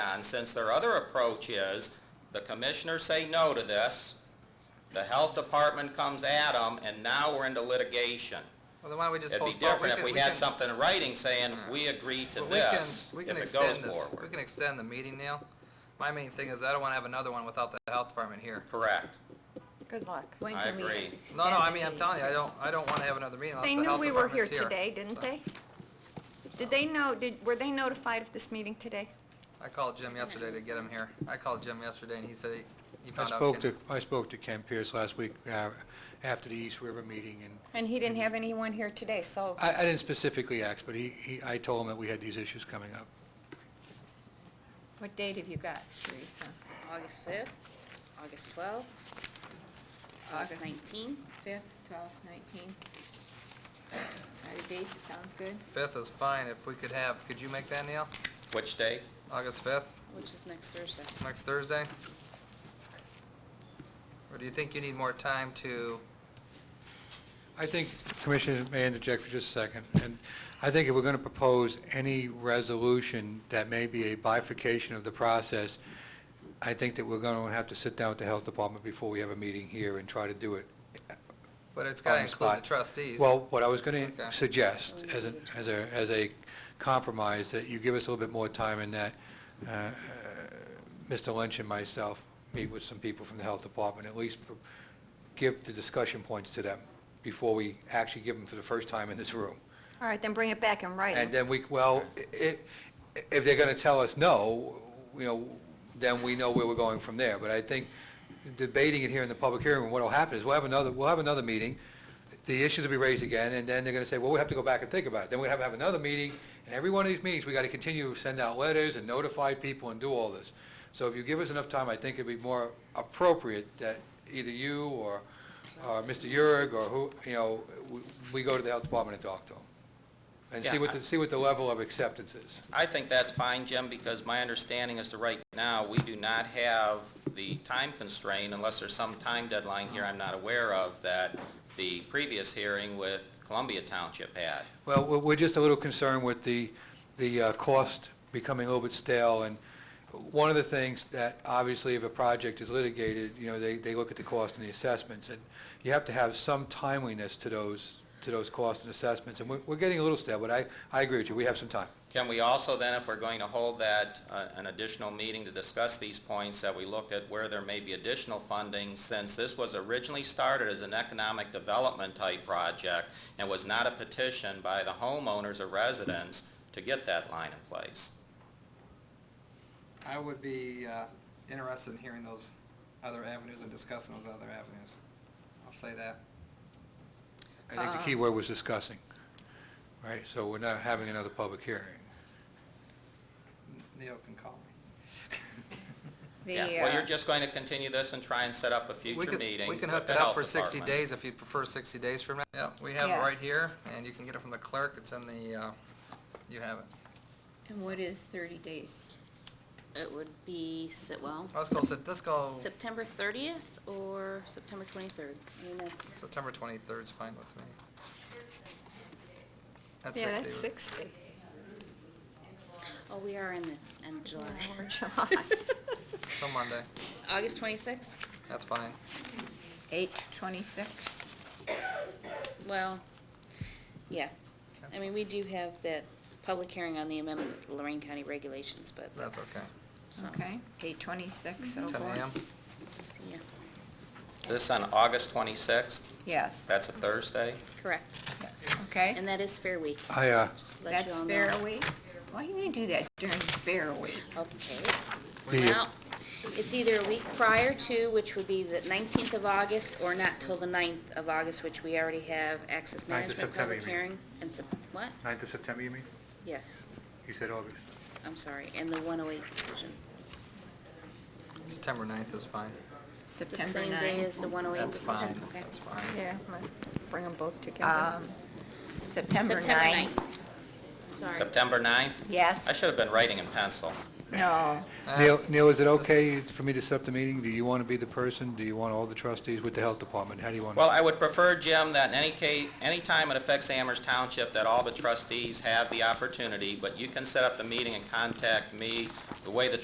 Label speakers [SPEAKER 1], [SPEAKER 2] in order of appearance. [SPEAKER 1] And since their other approach is, the commissioners say no to this, the health department comes at them, and now we're into litigation.
[SPEAKER 2] Well, then why don't we just
[SPEAKER 1] It'd be
[SPEAKER 2] postpone?
[SPEAKER 1] different if
[SPEAKER 2] can-
[SPEAKER 1] we had
[SPEAKER 2] can- Mm.
[SPEAKER 1] something in writing saying, we agree to
[SPEAKER 2] well, we can-
[SPEAKER 1] this,
[SPEAKER 2] we
[SPEAKER 1] if
[SPEAKER 2] can
[SPEAKER 1] it goes
[SPEAKER 2] extend this. We
[SPEAKER 1] forward.
[SPEAKER 2] can extend the meeting, Neil. My main thing is I don't want to have another one without the health department here.
[SPEAKER 1] Correct.
[SPEAKER 3] Good luck.
[SPEAKER 4] When
[SPEAKER 1] I
[SPEAKER 4] can we
[SPEAKER 1] agree.
[SPEAKER 4] extend
[SPEAKER 2] No, no, I
[SPEAKER 4] the
[SPEAKER 2] mean, I'm
[SPEAKER 4] meeting?
[SPEAKER 2] telling you, I don't, I don't want to have another meeting unless
[SPEAKER 3] They
[SPEAKER 2] the
[SPEAKER 3] knew
[SPEAKER 2] health
[SPEAKER 3] we were
[SPEAKER 2] department's
[SPEAKER 3] here
[SPEAKER 2] here.
[SPEAKER 3] today, didn't
[SPEAKER 2] So,
[SPEAKER 3] they? Did they know, did, were they notified of this meeting today?
[SPEAKER 2] I called Jim yesterday to get him here. I called Jim yesterday and he said he- he
[SPEAKER 5] I
[SPEAKER 2] found out.
[SPEAKER 5] spoke
[SPEAKER 2] Ken-
[SPEAKER 5] to, I spoke to Ken Pierce last week uh, after the East River meeting, and
[SPEAKER 3] And he
[SPEAKER 1] Mm-hmm.
[SPEAKER 3] didn't have anyone here today, so
[SPEAKER 1] Uh,
[SPEAKER 5] I, I didn't specifically ask, but he, he, I told him that we had these issues coming up.
[SPEAKER 4] What date have you got, Teresa?
[SPEAKER 6] August 5th, August 12th, August 19th.
[SPEAKER 4] Fifth, twelfth, nineteenth? Are the dates, it sounds good?
[SPEAKER 2] Fifth is fine if we could have, could you make that, Neil?
[SPEAKER 1] Which day?
[SPEAKER 2] August fifth,
[SPEAKER 6] which is next Thursday.
[SPEAKER 2] next Thursday? Or do you think you need more time to,
[SPEAKER 5] I think, Commissioner, may I interject for just a second? And I think if we're going to propose any resolution that may be a bifurcation of the process, I think that we're going to have to sit down with the Health Department before we have a meeting here and try to do it
[SPEAKER 2] but it's
[SPEAKER 5] on
[SPEAKER 2] got to include the
[SPEAKER 5] spot.
[SPEAKER 2] trustees.
[SPEAKER 5] Well, what I was going
[SPEAKER 2] Okay.
[SPEAKER 5] to suggest, as an, as a, as a compromise, that you give us a little bit more time and that uh, uh, Mr. Lynch and myself meet with some people from the Health Department, at least pr- give the discussion points to them before we actually give them for the first time in this room.
[SPEAKER 3] All right, then bring it back in
[SPEAKER 5] And
[SPEAKER 1] uh,
[SPEAKER 3] writing.
[SPEAKER 5] then we, well, if, if they're going to tell us no, you know, then we know where we're going from there. But I think debating it here in the public hearing, what'll happen is we'll have another, we'll have another meeting, the issues will be raised again, and then they're going to say, well, we have to go back and think about it. Then we have to have another meeting, and every one of these meetings, we got to continue to send out letters and notify people and do all this. So if you give us enough time, I think it'd be more appropriate that either you or, or Mr. Yurg or who, you know, we- we go to the health department and talk to them. And see
[SPEAKER 1] Yeah,
[SPEAKER 5] what,
[SPEAKER 1] I-
[SPEAKER 5] the- see what the level of acceptance is.
[SPEAKER 1] I think that's fine, Jim, because my understanding is that right now, we do not have the time constraint, unless there's some time deadline here I'm not aware of, that the previous hearing with Columbia Township had.
[SPEAKER 5] Well, we're- we're just a little concerned with the, the uh, cost becoming a little bit stale, and one of the things that, obviously, if a project is litigated, you know, they, they look at the cost and the assessments, and you have to have some timeliness to those, to those costs and assessments, and we're, we're getting a little stale, but I, I agree with you, we have some time.
[SPEAKER 1] Can we also then, if we're going to hold that, uh, an additional meeting to discuss these points, that we look at where there may be additional funding, since this was originally started as an economic development type project and was not a petition by the homeowners or residents to get that line in place?
[SPEAKER 2] I would be uh, interested in hearing those other avenues and discussing those other avenues. I'll say that.
[SPEAKER 5] I think the key word was discussing, right? So we're not having another public hearing.
[SPEAKER 2] Neil can call me.
[SPEAKER 4] The,
[SPEAKER 1] Yeah, well, you're
[SPEAKER 4] uh,
[SPEAKER 1] just going to continue this and try and set up a
[SPEAKER 2] We
[SPEAKER 1] future
[SPEAKER 2] could-
[SPEAKER 1] meeting
[SPEAKER 2] We can
[SPEAKER 1] with
[SPEAKER 2] hook
[SPEAKER 1] the
[SPEAKER 2] it up
[SPEAKER 1] health
[SPEAKER 2] for 60
[SPEAKER 1] department.
[SPEAKER 2] days if you prefer 60 days from now. Yeah, we have it
[SPEAKER 4] Yeah.
[SPEAKER 2] right here, and you can get it from the clerk. It's in the, uh, you have it.
[SPEAKER 4] And what is thirty days?
[SPEAKER 6] It would be, se- well,
[SPEAKER 2] Let's go, sit- let's go,
[SPEAKER 6] September 30th or September 23rd. I mean, that's,
[SPEAKER 2] September 23rd is fine with me. That's
[SPEAKER 3] Yeah, that's
[SPEAKER 2] 60.
[SPEAKER 3] 60.
[SPEAKER 6] oh, we are in the, in July.
[SPEAKER 3] Or July.
[SPEAKER 2] So Monday,
[SPEAKER 6] August 26th?
[SPEAKER 2] that's fine.
[SPEAKER 4] Eight twenty-six?
[SPEAKER 6] Well, yeah.
[SPEAKER 2] That's
[SPEAKER 6] I mean, we do have that public hearing on the amendment to Lorraine County regulations, but
[SPEAKER 2] That's
[SPEAKER 6] that's...
[SPEAKER 2] okay.
[SPEAKER 6] so,
[SPEAKER 4] Okay, eight twenty-six,
[SPEAKER 3] Mm-hmm.
[SPEAKER 4] oh so
[SPEAKER 2] 10
[SPEAKER 4] forth.
[SPEAKER 2] a.m.
[SPEAKER 6] Yeah,
[SPEAKER 1] This on August 26th,
[SPEAKER 4] Yes,
[SPEAKER 1] that's a Thursday.
[SPEAKER 6] correct.
[SPEAKER 4] yes, okay.
[SPEAKER 6] And that is Fair Week.
[SPEAKER 5] I, uh,
[SPEAKER 6] Just let
[SPEAKER 4] That's
[SPEAKER 6] y'all know.
[SPEAKER 4] Fair Week? Why do you do that during Fair Week?
[SPEAKER 6] Okay.
[SPEAKER 5] The-
[SPEAKER 6] Well, it's either a week prior to, which would be the 19th of August, or not till the 9th of August, which we already have access
[SPEAKER 5] Ninth of
[SPEAKER 6] management
[SPEAKER 5] September,
[SPEAKER 6] public
[SPEAKER 5] you mean.
[SPEAKER 6] hearing. And Sep- what?
[SPEAKER 5] 9th of September, you mean?
[SPEAKER 6] Yes,
[SPEAKER 5] You said August.
[SPEAKER 6] I'm sorry, and the 108 decision.
[SPEAKER 2] September 9th is fine.
[SPEAKER 6] The
[SPEAKER 4] September
[SPEAKER 6] same day as
[SPEAKER 4] ninth?
[SPEAKER 6] the 108
[SPEAKER 2] That's
[SPEAKER 6] decision.
[SPEAKER 2] fine,
[SPEAKER 6] Oh, Okay.
[SPEAKER 2] that's fine.
[SPEAKER 3] Yeah, let's bring them both together.
[SPEAKER 4] Um, September ninth?
[SPEAKER 6] 9th. Sorry.
[SPEAKER 1] September 9th? I
[SPEAKER 4] Yes,
[SPEAKER 1] should have been writing in pencil.
[SPEAKER 4] no,
[SPEAKER 2] Uh,
[SPEAKER 5] Neil, Neil, is it okay for me to set up the meeting? Do you want to be the person? Do you want all the trustees with the health department? How do you want?
[SPEAKER 1] Well, I would prefer, Jim, that in any case, anytime it affects Amherst Township, that all the trustees have the opportunity, but you can set up the meeting and contact me. The way the